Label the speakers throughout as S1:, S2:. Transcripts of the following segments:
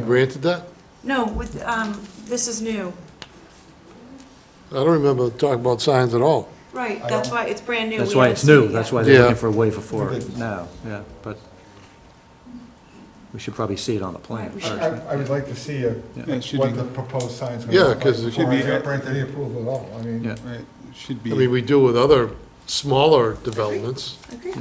S1: We granted that?
S2: No, with, um, this is new.
S1: I don't remember talking about signs at all.
S2: Right, that's why, it's brand new.
S3: That's
S2: We
S3: why
S2: haven't
S3: it's
S2: seen it
S3: new,
S2: yet.
S3: that's why they're
S1: Yeah.
S3: looking for a waiver for it now, yeah, but we should probably see it on the plan
S2: Right, we
S3: first.
S2: should.
S4: I, I would like to see a-
S5: Yeah, it should
S4: what
S5: be-
S4: the proposed sign's gonna
S1: Yeah,
S4: look like
S1: 'cause it
S4: before
S5: should be-
S4: I grant any approval at all, I mean,
S3: Yeah.
S5: Right, should
S1: I mean,
S5: be,
S1: we do with other smaller developments.
S2: Agree?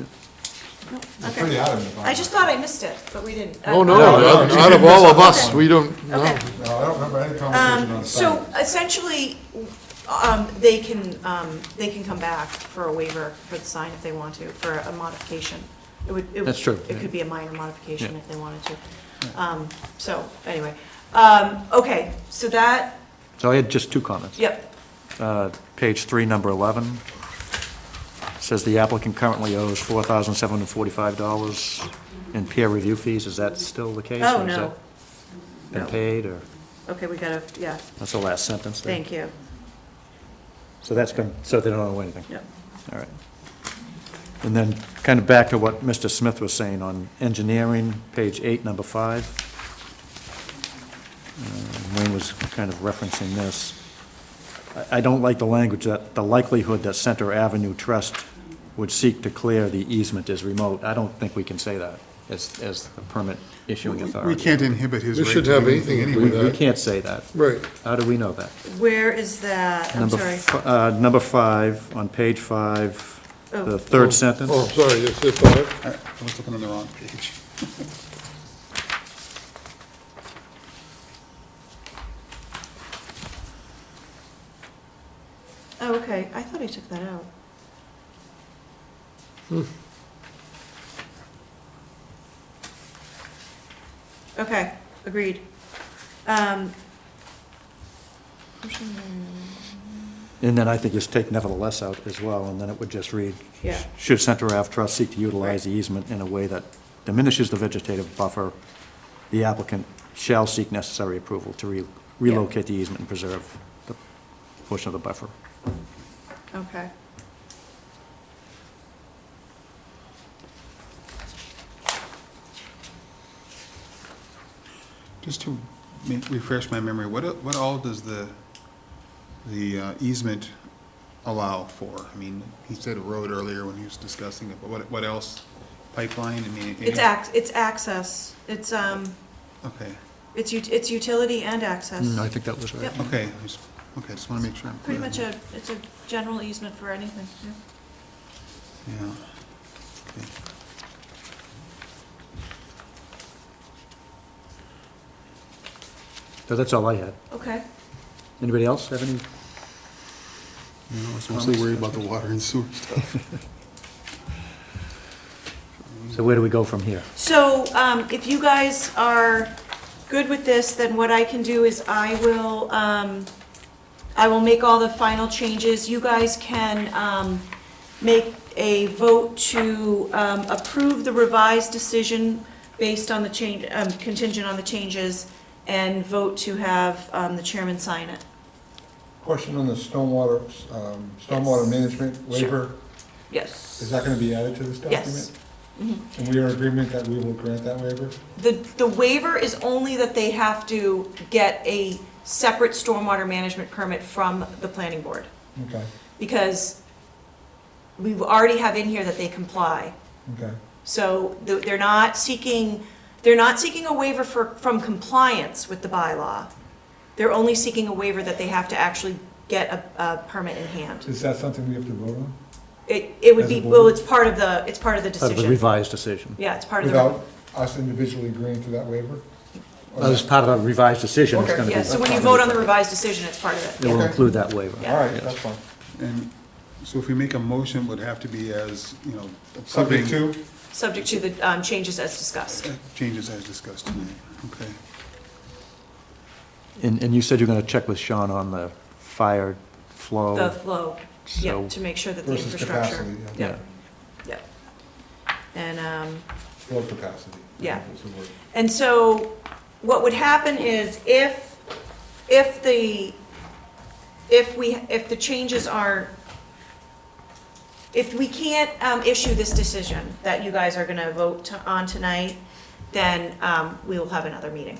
S2: No,
S4: it's pretty
S2: Okay.
S4: adamant about
S2: I just thought I missed it, but we didn't. Um,
S1: Oh, no,
S4: No, no,
S1: out
S4: you
S1: out
S4: did
S1: of all
S4: miss
S1: of
S4: that
S1: us,
S4: one.
S1: we don't, no.
S2: Okay.
S4: it. No, I don't remember any conversation on
S2: Um,
S4: the
S2: so
S4: sign.
S2: essentially, um, they can, um, they can come back for a waiver for the sign if they want to, for a modification. It would, it would.
S3: That's true,
S2: It
S3: yeah.
S2: could be a minor modification
S3: Yeah.
S2: if they wanted to. Um, so, anyway, um, okay, so that,
S3: So I had just two comments.
S2: yep,
S3: Uh, Page three, number 11, says the applicant currently owes $4,745 in peer review fees. Is that still the case?
S2: Oh,
S3: or has
S2: no.
S3: that Been
S2: No.
S3: paid, or,
S2: okay, we gotta, yeah,
S3: that's the last sentence there?
S2: thank you,
S3: So that's been, so they don't owe anything?
S2: yep.
S3: All right. And then, kind of back to what Mr. Smith was saying on engineering, page eight, number five. Uh, Wayne was kind of referencing this. I, I don't like the language that the likelihood that Center Avenue Trust would seek to clear the easement is remote. I don't think we can say that as, as the permit issuing authority.
S5: we can't inhibit his.
S1: We
S5: right
S1: should
S5: to
S1: have
S5: do
S1: anything to do with
S3: We
S1: that.
S3: can't say that.
S1: Right.
S3: How do we know that?
S2: Where is that? I'm
S3: Number
S2: sorry.
S3: f- uh, Number five, on page five,
S2: Oh.
S3: the third sentence.
S1: Oh, sorry, it's, it's all right.
S5: I I was looking on the wrong page.
S2: Oh, okay, I thought I took that out. Okay, agreed. Um,
S3: And then I think just take nevertheless out as well, and then it would just read,
S2: Yeah.
S3: should Center Ave Trust seek to utilize the easement in a way that diminishes the vegetative buffer, the applicant shall seek necessary approval to re- relocate the easement and preserve the portion of the buffer.
S2: Okay.
S5: Just to ma- refresh my memory, what, a- what all does the, the uh, easement allow for? I mean, he said a road earlier when he was discussing it, but what, what else? Pipeline, I mean. any-
S2: It's ac, it's access, it's, um,
S5: Okay,
S2: it's, ut- it's utility and access.
S3: Mm, I think that was right.
S2: Yep.
S5: okay, I just- okay, just want to make sure. I'm
S2: Pretty
S5: clear.
S2: much a, it's a general easement for anything, yeah.
S5: Yeah. Okay.
S3: So that's all I had.
S2: Okay,
S3: Anybody else have any?
S5: You know, I was mostly worried about the water and sewer stuff.
S3: So where do we go from here?
S2: so, um, if you guys are good with this, then what I can do is I will, um, I will make all the final changes. You guys can, um, make a vote to, um, approve the revised decision based on the change, um, contingent on the changes, and vote to have, um, the chairman sign it.
S4: Question on the stormwater, um, stormwater management waiver,
S2: Yes.
S4: is that gonna be added to this document?
S2: Yes.
S4: And we are in agreement that we will grant that waiver?
S2: The, the waiver is only that they have to get a separate stormwater management permit from the planning board,
S4: Okay,
S2: because we already have in here that they comply.
S4: okay,
S2: So th- they're not seeking, they're not seeking a waiver for, from compliance with the bylaw. They're only seeking a waiver that they have to actually get a, a permit in hand.
S4: is that something we have to vote on?
S2: It, it would
S4: As a
S2: be,
S4: board?
S2: well, it's part of the, it's part of the
S3: Part of the
S2: decision.
S3: revised decision.
S2: Yeah, it's part of the.
S4: Without us individually agreeing to that waiver? Or
S3: As
S4: not?
S3: part of the revised decision, it's
S4: Okay.
S3: going to be.
S2: Yeah, so when you vote on the revised decision, it's part of
S3: It
S2: it.
S3: will
S4: Okay.
S3: include that waiver.
S2: Yeah.
S4: All right, that's fine.
S5: And so if we make a motion, it would have to be as, you know,
S4: Subject
S5: approving-
S4: to,
S2: subject to the um, changes as discussed.
S5: Changes as discussed tonight, okay.
S3: And, and you said you're going to check with Sean on the fire flow?
S2: The flow, yeah,
S3: So-
S2: to make sure that the
S4: Oh. versus
S2: infrastructure.
S4: capacity, yeah.
S2: Yeah, yeah. And, um,
S4: flow capacity.
S2: Yeah.
S4: That's the word.
S2: and so what would happen is if, if the, if we, if the changes are, if we can't um, issue this decision that you guys are going to vote to- on tonight, then um, we will have another meeting.